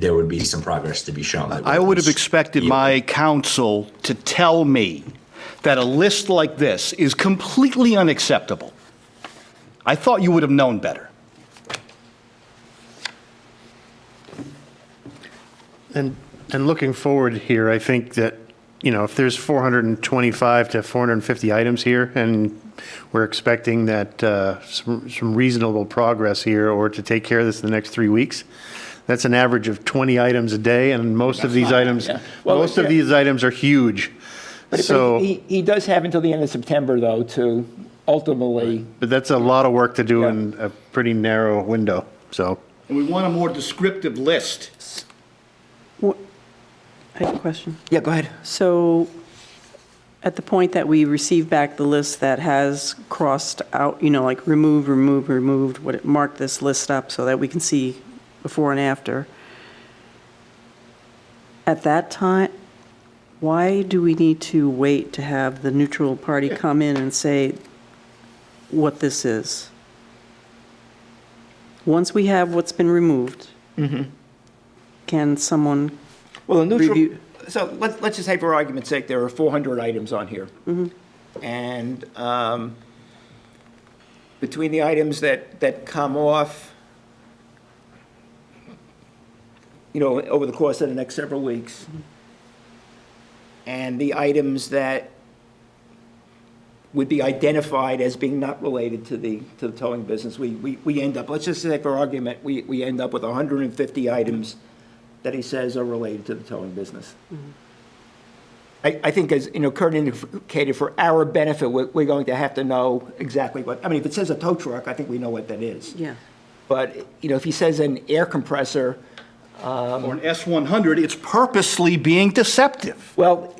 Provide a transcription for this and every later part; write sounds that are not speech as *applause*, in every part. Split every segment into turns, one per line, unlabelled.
there would be some progress to be shown. that
I would have
was-
expected my counsel to tell me that a list like this is completely unacceptable. I thought you would have known better.
And, and looking forward here, I think that, you know, if there's 425 to 450 items here, and we're expecting that uh, some some reasonable progress here, or to take care of this in the next three weeks, that's an average of 20 items a day, and most of these items,
yeah. Well,
most of
yeah.
these items are huge.
But if-
So,
He, he does have until the end of September, though, to ultimately,
but that's a lot of work to do
Yeah.
in a pretty narrow window, so.
And we want a more descriptive list.
Wha- I have a question.
yeah, go ahead.
So at the point that we receive back the list that has crossed out, you know, like removed, removed, removed, what it marked this list up so that we can see before and after. At that time, why do we need to wait to have the neutral party come in and say what this is? Once we have what's been removed, can someone
Well, the neutral,
Review-
so let's, let's just say for argument's sake, there are 400 items on here. And um, between the items that, that come off, you know, over the course of the next several weeks, and the items that would be identified as being not related to the, to the towing business, we, we, we end up, let's just say for argument, we, we end up with 150 items that he says are related to the towing business. I, I think as, you know, Kurt indicated, for our benefit, we're, we're going to have to know exactly what, I mean, if it says a tow truck, I think we know what that is.
Yeah.
But, you know, if he says an air compressor,
Or an S-100, it's purposely being deceptive.
well,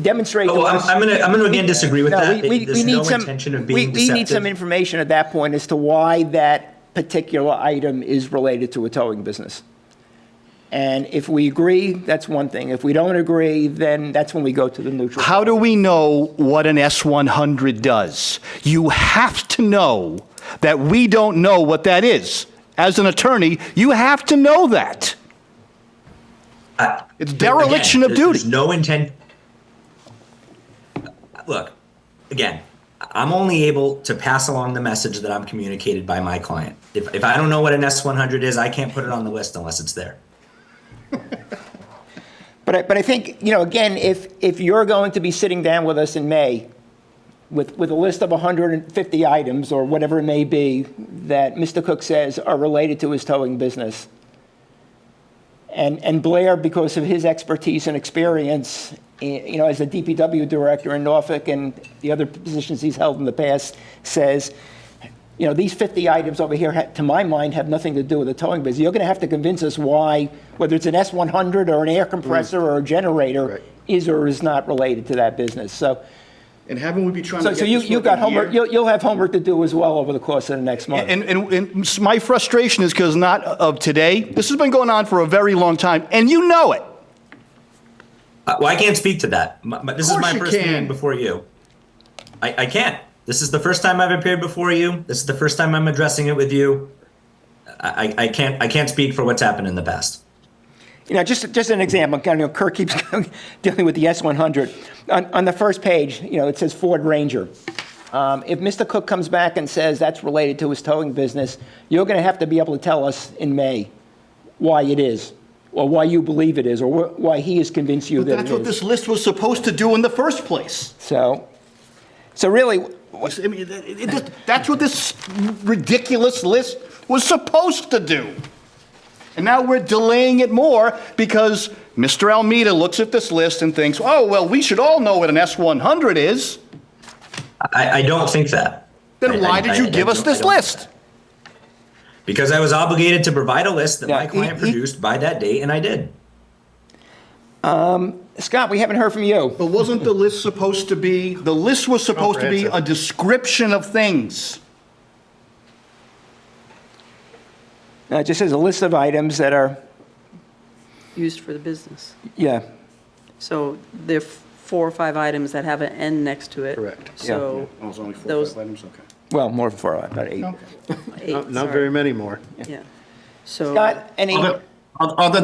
demonstrate to
Oh, I'm-
us.
I'm gonna- I'm gonna again disagree with
No,
that.
we- we-
There's
we need
no
some-
intention of
we-
being
We need some
deceptive.
information at that point as to why that particular item is related to a towing business. And if we agree, that's one thing. If we don't agree, then that's when we go to the neutral.
How do we know what an S-100 does? You have to know that we don't know what that is. As an attorney, you have to know that. It's dereliction
Again,
of
there-
duty.
There's no intent. Look, again, I'm only able to pass along the message that I'm communicated by my client. If, if I don't know what an S100 is, I can't put it on the list unless it's there.
But I, but I think, you know, again, if, if you're going to be sitting down with us in May with, with a list of 150 items or whatever it may be that Mr. Cook says are related to his towing business, and, and Blair, because of his expertise and experience, eh, you know, as the DPW director in Norfolk and the other positions he's held in the past, says, you know, these 50 items over here, ha- to my mind, have nothing to do with the towing business. You're going to have to convince us why, whether it's an S100 or an air compressor or a generator,
Right.
is or is not related to that business. So,
And haven't we been trying
so so you, you got homework, you'll, you'll have homework to do as well over the course of the next month.
And, and, and s- my frustration is because not of today. This has been going on for a very long time, and you know it.
Uh, well, I can't speak to that. My, my- this is
course
my
you
first
can.
meeting before you. I, I can't. This is the first time I've appeared before you. This is the first time I'm addressing it with you. I, I I can't I can't speak for what's happened in the past.
You know, just, just an example, kind of, you know, Kirk keeps *laughs* dealing with the S100. On, on the first page, you know, it says Ford Ranger. Um, if Mr. Cook comes back and says that's related to his towing business, you're going to have to be able to tell us in May why it is, or why you believe it is, or wh- why he is convinced you that
That's
it
what
is.
this list was supposed to do in the first place.
So, so really,
I mean, it- it- it- that's what this ridiculous list was supposed to do. And now we're delaying it more because Mr. Almeida looks at this list and thinks, oh, well, we should all know what an S-100 is.
I, I don't think that. I-
Then
I-
why did you
I- I
give us
don't- I
this
don't-
list?
Because I was obligated to provide a list that
Yeah,
my client
he- he-
produced by that date, and I did.
Scott, we haven't heard from you.
But wasn't the list supposed to be, the list was supposed to be a
Comprehensive.
description of things?
Uh, It just says a list of items that are,
used for the business?
yeah,
So there are four or five items that have an N next to it.
Correct.
So
Oh,
those
items, okay.
well, more than four, about eight.
eight,
Not very
sorry.
many more.
Yeah. So.
Scott, any?
Other, other